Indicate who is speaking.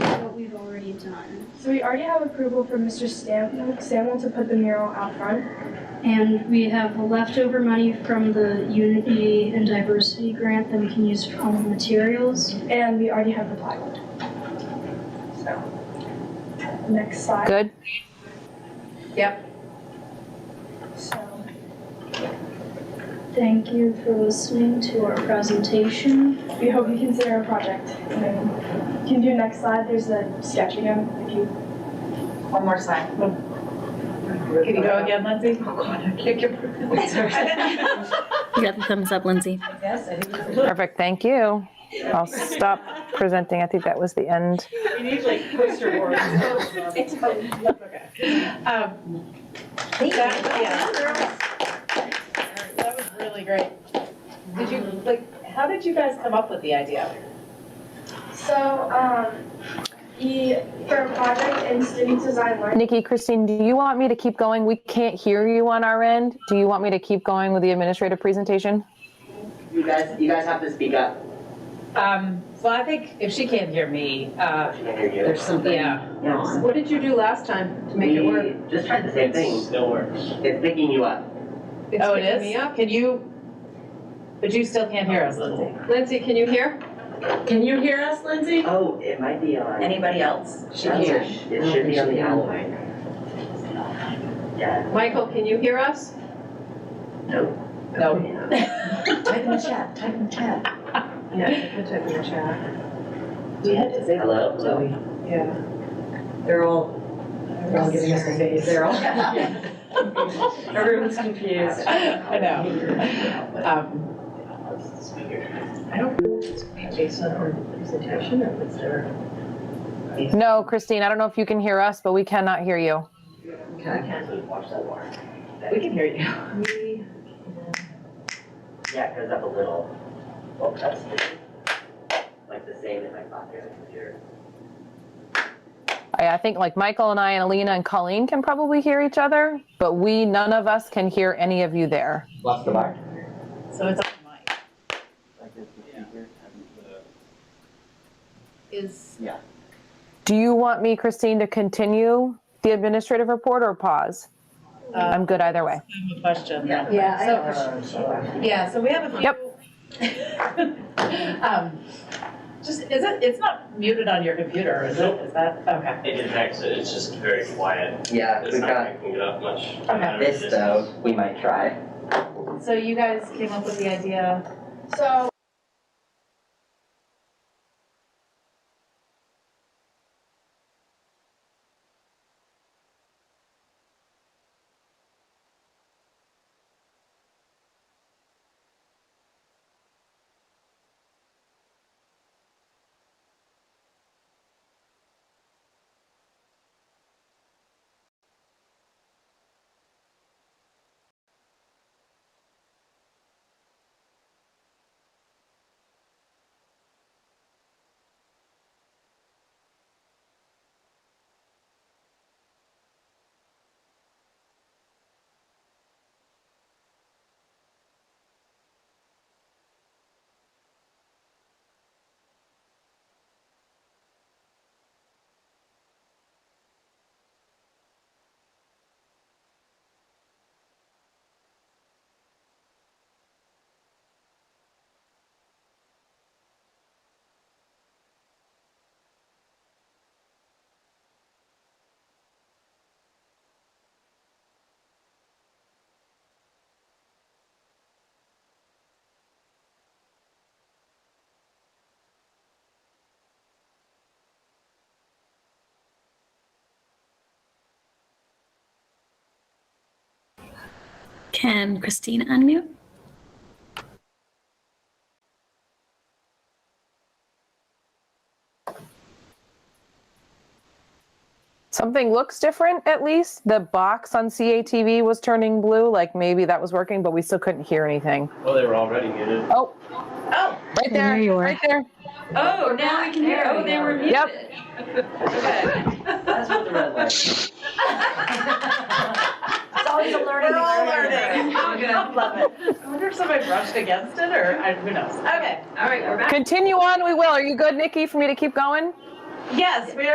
Speaker 1: we've already done.
Speaker 2: So we already have approval from Mr. Stam- Samuel to put the mural out front.
Speaker 1: And we have the leftover money from the Unity and Diversity Grant that we can use for all the materials.
Speaker 2: And we already have the plywood. So, next slide.
Speaker 3: Good.
Speaker 2: So,
Speaker 1: Thank you for listening to our presentation.
Speaker 2: we hope you consider a project. And then you can do next slide. There's a sketch again if you
Speaker 4: One more slide. Can you go again, Lindsay? Oh, God, I can't get.
Speaker 3: You got the thumbs up, Lindsay.
Speaker 4: Yes, I think it's-
Speaker 5: Perfect, thank you. I'll stop presenting. I think that was the end.
Speaker 6: We need like poster boards. Um, that- yeah. That was really great. Did you, like, how did you guys come up with the idea?
Speaker 2: So, um, he, for a project in student design learning,
Speaker 5: Nikki, Christine, do you want me to keep going? We can't hear you on our end. Do you want me to keep going with the administrative presentation?
Speaker 7: You guys, you guys have to speak up.
Speaker 6: Um, well, I think if she can't hear me, uh,
Speaker 7: She can hear you.
Speaker 8: There's something
Speaker 6: yeah.
Speaker 8: wrong.
Speaker 6: What did you do last time to make it work?
Speaker 7: We just tried the same
Speaker 8: It
Speaker 7: thing.
Speaker 8: still works.
Speaker 7: It's picking you up.
Speaker 6: Oh, it
Speaker 4: picking
Speaker 6: is?
Speaker 4: me up.
Speaker 6: Can you, but you still can't hear us, Lindsay.
Speaker 4: Lindsay, can you hear?
Speaker 8: Can you hear us, Lindsay?
Speaker 7: Oh, it might be on.
Speaker 4: Anybody else?
Speaker 8: She
Speaker 7: That's
Speaker 8: can't.
Speaker 7: a sh- It should be on the owl. Yeah.
Speaker 4: Michael, can you hear us?
Speaker 7: No.
Speaker 6: No.
Speaker 8: Type in the chat, type in the chat.
Speaker 4: Yeah, you can type in the chat.
Speaker 8: We had to say
Speaker 7: Hello?
Speaker 8: so we-
Speaker 4: Yeah.
Speaker 8: They're all, they're all giving us the face. They're all. Everyone's confused.
Speaker 6: I know. Um,
Speaker 8: I don't know if it's based on her presentation or if it's her.
Speaker 5: No, Christine, I don't know if you can hear us, but we cannot hear you.
Speaker 8: Okay.
Speaker 6: we can hear you.
Speaker 8: We-
Speaker 7: Yeah, it goes up a little. Well, that's like the same in my pocket over here.
Speaker 5: I, I think like Michael and I and Alina and Colleen can probably hear each other, but we, none of us can hear any of you there.
Speaker 7: Left the mic.
Speaker 6: So it's on mic. Is,
Speaker 5: Do you want me, Christine, to continue the administrative report or pause?
Speaker 6: uh,
Speaker 5: I'm good either way.
Speaker 6: I have a question.
Speaker 8: Yeah, I
Speaker 6: So-
Speaker 8: have a question.
Speaker 6: Yeah, so we have a few. Um, Just, is it, it's not muted on your computer, is it? Is that, okay.
Speaker 9: It detects it, it's just very quiet.
Speaker 7: Yeah,
Speaker 9: It's
Speaker 7: we've got
Speaker 9: not picking it up much.
Speaker 6: Okay.
Speaker 7: this though, we might try.
Speaker 6: So you guys came up with the idea,
Speaker 2: so
Speaker 3: Can Christine unmute?
Speaker 5: Something looks different at least. The box on CATV was turning blue, like maybe that was working, but we still couldn't hear anything.
Speaker 9: Well, they were already muted.
Speaker 5: Oh,
Speaker 4: Oh,
Speaker 5: right there,
Speaker 3: There you are.
Speaker 5: right there.
Speaker 8: Oh, now we can hear. Oh, they were muted.
Speaker 5: Yep.
Speaker 7: That's what the red light.
Speaker 8: It's always a learning.
Speaker 6: we're all learning.
Speaker 8: Oh, good.
Speaker 6: I love it. I wonder if somebody brushed against it, or, I- who knows?
Speaker 8: Okay, all right, we're back.
Speaker 5: Continue on, we will. Are you good, Nikki, for me to keep going?
Speaker 6: Yes, we